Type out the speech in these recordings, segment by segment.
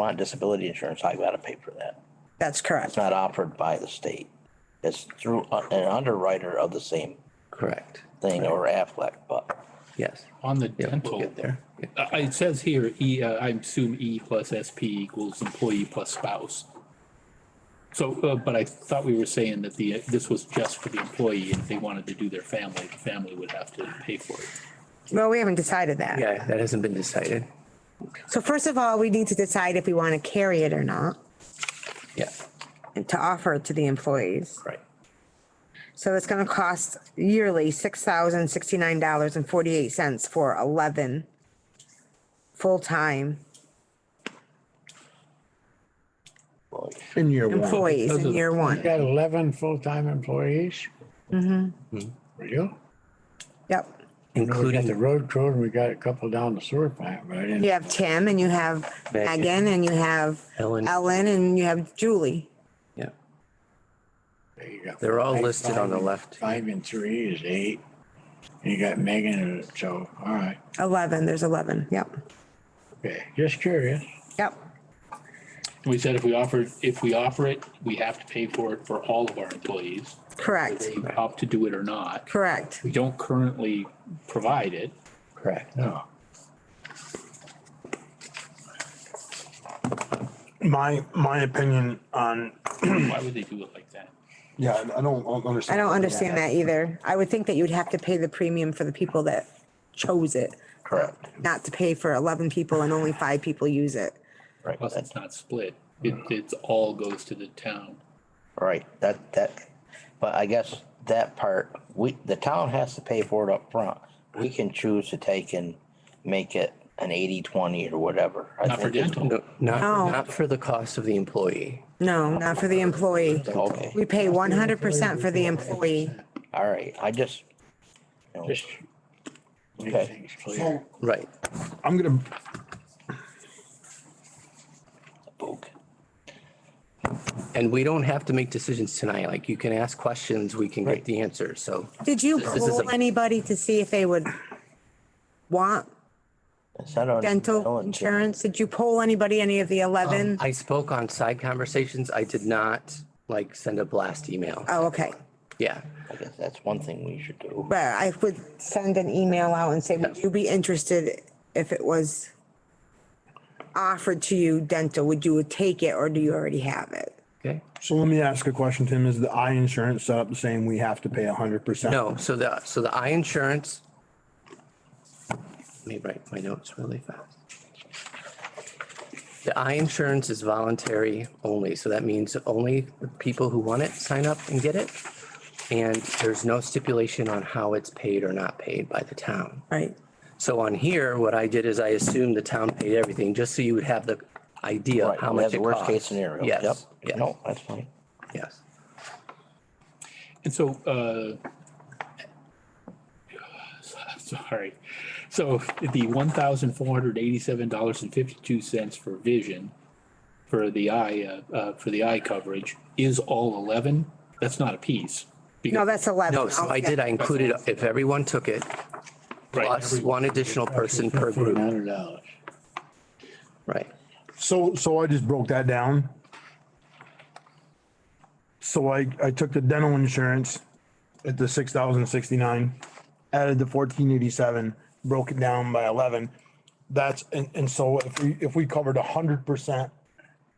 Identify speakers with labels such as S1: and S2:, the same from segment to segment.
S1: want disability insurance, I gotta pay for that.
S2: That's correct.
S1: It's not offered by the state. It's through a- an underwriter of the same
S3: Correct.
S1: thing or Aflac, but
S3: Yes.
S4: On the
S3: Yeah, we'll
S4: dental,
S3: get there. Yeah.
S4: uh, it says here, E, uh, I assume E plus SP equals employee plus spouse. So, uh, but I thought we were saying that the, uh, this was just for the employee, and if they wanted to do their family, the family would have to pay for it.
S2: Well, we haven't decided that.
S3: Yeah, that hasn't been decided.
S2: So first of all, we need to decide if we want to carry it or not
S3: Yeah,
S2: and to offer it to the employees.
S3: right.
S2: So it's going to cost yearly six thousand sixty-nine dollars and forty-eight cents for eleven full-time
S1: well,
S5: In year one,
S2: employees in year
S5: you
S2: one.
S5: got eleven full-time employees?
S6: Hmm.
S5: Mm-hmm. You?
S2: Yep.
S5: We got the
S3: Including,
S5: road crew and we got a couple down the sewer plant, but I didn't,
S2: You have Tim and you have
S3: Megan.
S2: Megan and you have
S3: Ellen.
S2: Ellen and you have Julie.
S3: yeah,
S5: you got
S3: they're all
S5: five-
S3: listed on the
S5: five-
S3: left.
S5: Five and three is eight. And you got Megan, so, all right,
S2: Eleven, there's eleven. Yep.
S5: okay, just curious.
S2: Yep.
S4: We said if we offered, if we offer it, we have to pay for it for all of our employees,
S2: Correct.
S4: they opt to do it or not.
S2: Correct.
S4: We don't currently provide it.
S5: Correct. No.
S6: My, my opinion on,
S4: Why would they do it like that?
S6: yeah, I I don't un-
S2: I
S6: understand.
S2: don't understand that either. I would think that you'd have to pay the premium for the people that chose it,
S1: correct,
S2: not to pay for eleven people and only five people use it.
S1: right,
S4: Plus,
S1: that's
S4: it's not split. It,
S3: Mm.
S4: it's all goes to the town.
S1: right, that, that, but I guess that part, we, the town has to pay for it up front. We can choose to take and make it an eighty, twenty or whatever. I
S4: Not for
S1: think it's-
S4: dental.
S3: No, not,
S2: No.
S3: not for the cost of the employee.
S2: No, not for the employee.
S1: Okay,
S2: We pay one hundred percent for the employee.
S1: all right, I just, you know,
S5: Just make
S1: Okay.
S5: things
S6: So,
S5: clear.
S3: Right.
S6: I'm gonna,
S1: spoke.
S3: And we don't have to make decisions tonight. Like you can ask questions, we can get
S1: Right.
S3: the answer. So
S2: Did you
S3: is a-
S2: poll anybody to see if they would want
S1: Is that on
S2: dental insurance? Did you poll anybody, any of the eleven?
S3: I spoke on side conversations. I did not like send a blast email.
S2: Oh, okay.
S3: Yeah.
S1: I guess that's one thing we should do.
S2: But I would send an email out and say, would you be interested if it was offered to you dental? Would you take it or do you already have it?
S3: Okay.
S6: so let me ask a question, Tim. Is the eye insurance set up the same? We have to pay a hundred percent?
S3: No, so the, so the eye insurance. Let me write my notes really fast. The eye insurance is voluntary only, so that means only the people who want it sign up and get it. And there's no stipulation on how it's paid or not paid by the town.
S2: Right?
S3: So on here, what I did is I assumed the town paid everything, just so you would have the idea of
S1: Right,
S3: how
S1: we have the
S3: much it
S1: worst case
S3: costs.
S1: scenario. Yep.
S3: Yes, yes,
S1: No, that's fine.
S3: yes.
S4: And so, uh, sorry. So the one thousand four hundred eighty-seven dollars and fifty-two cents for vision for the eye, uh, uh, for the eye coverage is all eleven? That's not a piece.
S2: No, that's eleven.
S3: No, so I did, I included, if everyone took it,
S4: Right,
S3: plus
S4: every-
S3: one additional person per
S5: Fifteen
S3: group,
S5: hundred dollars.
S3: right?
S6: So, so I just broke that down. So I, I took the dental insurance at the six thousand sixty-nine, added the fourteen eighty-seven, broke it down by eleven. That's, and, and so if we, if we covered a hundred percent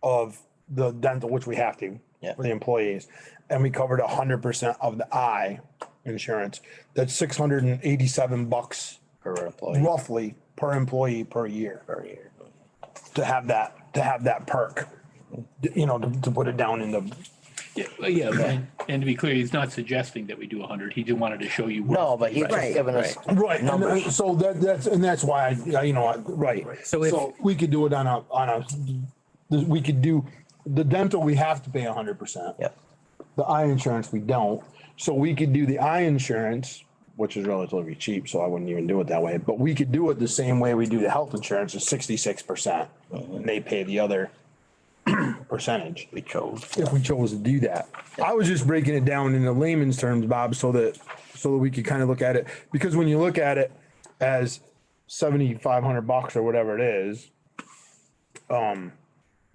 S6: of the dental, which we have to
S1: Yeah.
S6: for the employees, and we covered a hundred percent of the eye insurance, that's six hundred and eighty-seven bucks
S1: Per employee,
S6: roughly per employee per year
S1: per year.
S6: to have that, to have that perk, you know, to, to put it down in the,
S4: Yeah, well, yeah, and, and to be clear, he's not suggesting that we do a hundred. He just wanted to show you. what-
S1: No, but he's just
S2: Right.
S1: giving us
S6: right. And
S1: numbers.
S6: uh, so that, that's, and that's why I, yeah, you know, I- right.
S3: So if-
S6: We could do it on a, on a, we could do, the dental, we have to pay a hundred percent.
S1: Yep.
S6: The eye insurance, we don't. So we could do the eye insurance, which is relatively cheap, so I wouldn't even do it that way. But we could do it the same way we do the health insurance, is sixty-six percent. And they pay the other percentage.
S1: We chose.
S6: if we chose to do that. I was just breaking it down in the layman's terms, Bob, so that, so that we could kind of look at it. Because when you look at it as seventy-five hundred bucks or whatever it is, um,